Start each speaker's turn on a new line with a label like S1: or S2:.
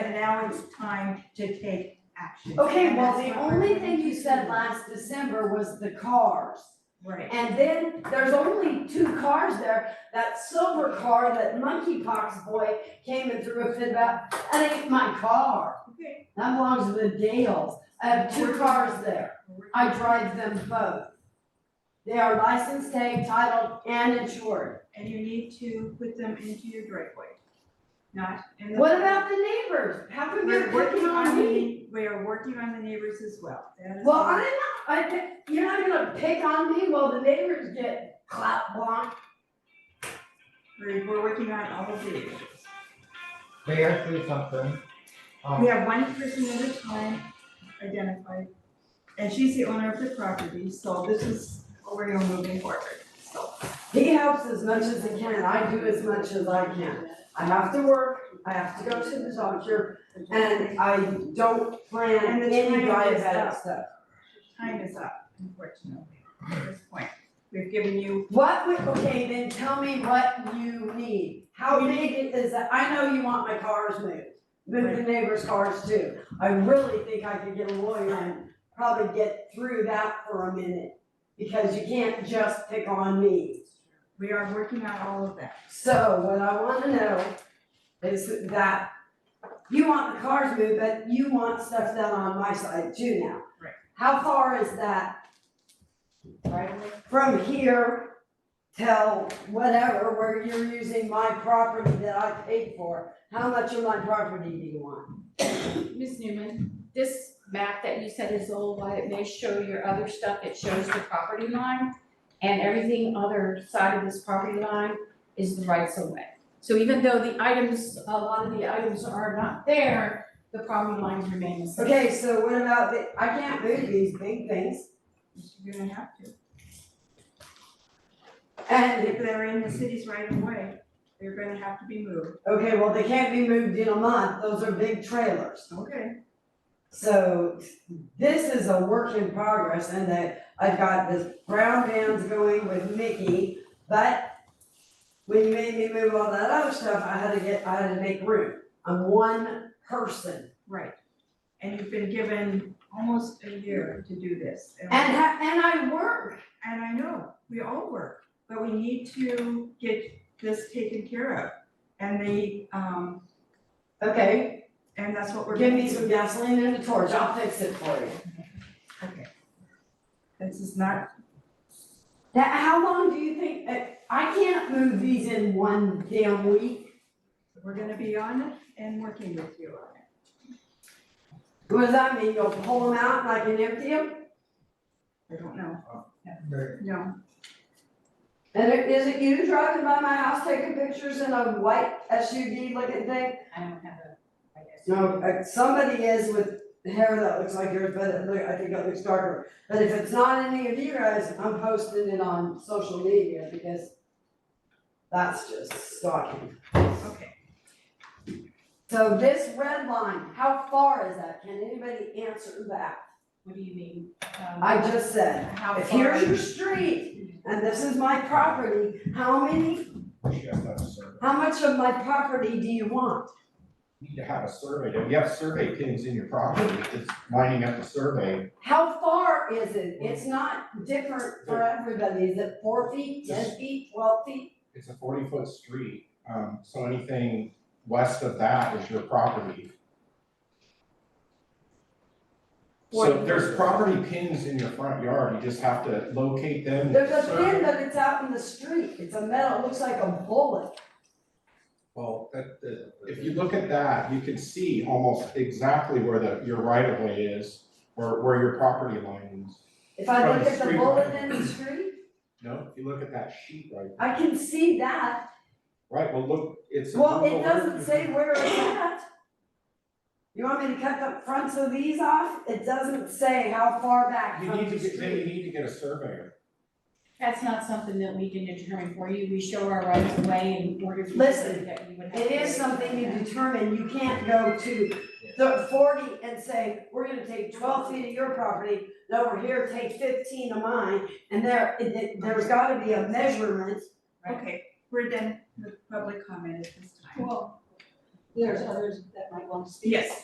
S1: now it's time to take action.
S2: Okay,
S1: And
S2: well,
S1: that's
S2: the
S1: what
S2: only
S1: we're
S2: thing you said last December was the cars.
S1: Right,
S2: And then there's only two cars there, that silver car that monkeypox boy came and threw a fit about, that ain't my car.
S1: okay.
S2: That belongs to the Dales. I have two cars there. I drive them both. They are licensed, tag, titled, and insured.
S1: And you need to put them into your driveway, not in the.
S2: What about the neighbors? How come you're
S1: We're working on
S2: me?
S1: the, we are working on the neighbors as well. That is
S2: Well,
S1: all.
S2: I'm not, I, thi- you're not gonna pick on me while the neighbors get clapped on.
S1: We're, we're working on all of these.
S3: They asked me something.
S1: We
S3: Um,
S1: have one person at a time identified, and she's the owner of the property, so this is what we're gonna moving forward, so.
S2: He helps as much as he can, I do as much as I can. I have to work, I have to go to the doctor, and I don't plan
S1: And the
S2: any
S1: time is
S2: diabetic
S1: up.
S2: stuff.
S1: Time is up, unfortunately, at this point. We've given you,
S2: What would, okay, then tell me what you need. How big is that? I know you want my cars moved, move the neighbors' cars too. I really think I could get a lawyer and probably get through that for a minute. Because you can't just pick on me.
S1: we are working on all of that.
S2: So what I wanna know is that you want the cars moved, but you want stuff done on my side too now.
S1: Right.
S2: How far is that
S1: Right away?
S2: from here till whatever, where you're using my property that I paid for, how much of my property do you want?
S4: Ms. Newman, this map that you said is old, while it may show your other stuff, it shows the property line. And everything other side of this property line is the rights of way. So even though the items, a lot of the items are not there, the property lines remain the same.
S2: Okay, so what about the, I can't move these big things,
S1: You're gonna have to. And
S2: and,
S1: if they're in the city's right of way, they're gonna have to be moved.
S2: okay, well, they can't be moved in a month, those are big trailers.
S1: Okay.
S2: So this is a work in progress and that I've got this brown bands going with Mickey, but when you made me move all that other stuff, I had to get, I had to make room. I'm one person.
S1: Right. And you've been given almost a year to do this.
S2: And ha- and I work.
S1: And I know, we all work, but we need to get this taken care of. And the, um,
S2: Okay,
S1: and that's what we're.
S2: give me some gasoline and a torch, I'll fix it for you.
S1: Okay. This is not,
S2: That, how long do you think, uh, I can't move these in one damn week.
S1: we're gonna be on it and working with you on it.
S2: What does that mean, you'll pull them out and I can empty them?
S1: I don't know,
S3: they-
S1: no,
S2: And it- is it you driving by my house taking pictures in a white SUV looking thing?
S4: I don't have a, I guess.
S2: No, uh, somebody is with hair that looks like yours, but it look, I think it looks darker. But if it's not any of you guys, I'm posting it on social media because that's just stalking.
S1: okay.
S2: So this red line, how far is that? Can anybody answer that?
S4: What do you mean? Um,
S2: I just said,
S1: How
S2: if
S1: far-
S2: here's your street and this is my property, how many,
S3: You have to have a survey.
S2: how much of my property do you want?
S3: You need to have a survey. If you have survey pins in your property, it's lining up the survey.
S2: How far is it? It's not different for everybody. Is it four feet, ten feet, twelve feet?
S3: It's a forty foot street, um, so anything west of that is your property. So if there's property pins in your front yard, you just have to locate them.
S2: There's a pin that it's out in the street. It's a metal, it looks like a bullet.
S3: Well, that, that- if you look at that, you can see almost exactly where the, your right of way is, or where your property line is.
S2: If I
S3: From
S2: look
S3: the
S2: at the
S3: street.
S2: bullet in the street,
S3: No, if you look at that sheet right
S2: I can see that.
S3: Right, well, look, it's.
S2: Well, it doesn't say where it's at. You want me to cut the fronts of these off? It doesn't say how far back
S3: You
S2: from
S3: need
S2: the
S3: to get, then you
S2: street.
S3: need to get a surveyor.
S4: That's not something that we can determine for you. We show our rights of way in order for you to say
S2: Listen,
S4: that we would have.
S2: It
S4: to
S2: is
S4: do
S2: something you
S4: that.
S2: determine, you can't go to the forty and say, we're gonna take twelve feet of your property, and over here, take fifteen of mine, and there, it- it- there's gotta be a measurement.
S1: Okay, we're done with public comment at this time.
S5: Well, there's others that might want to speak.
S1: Yes,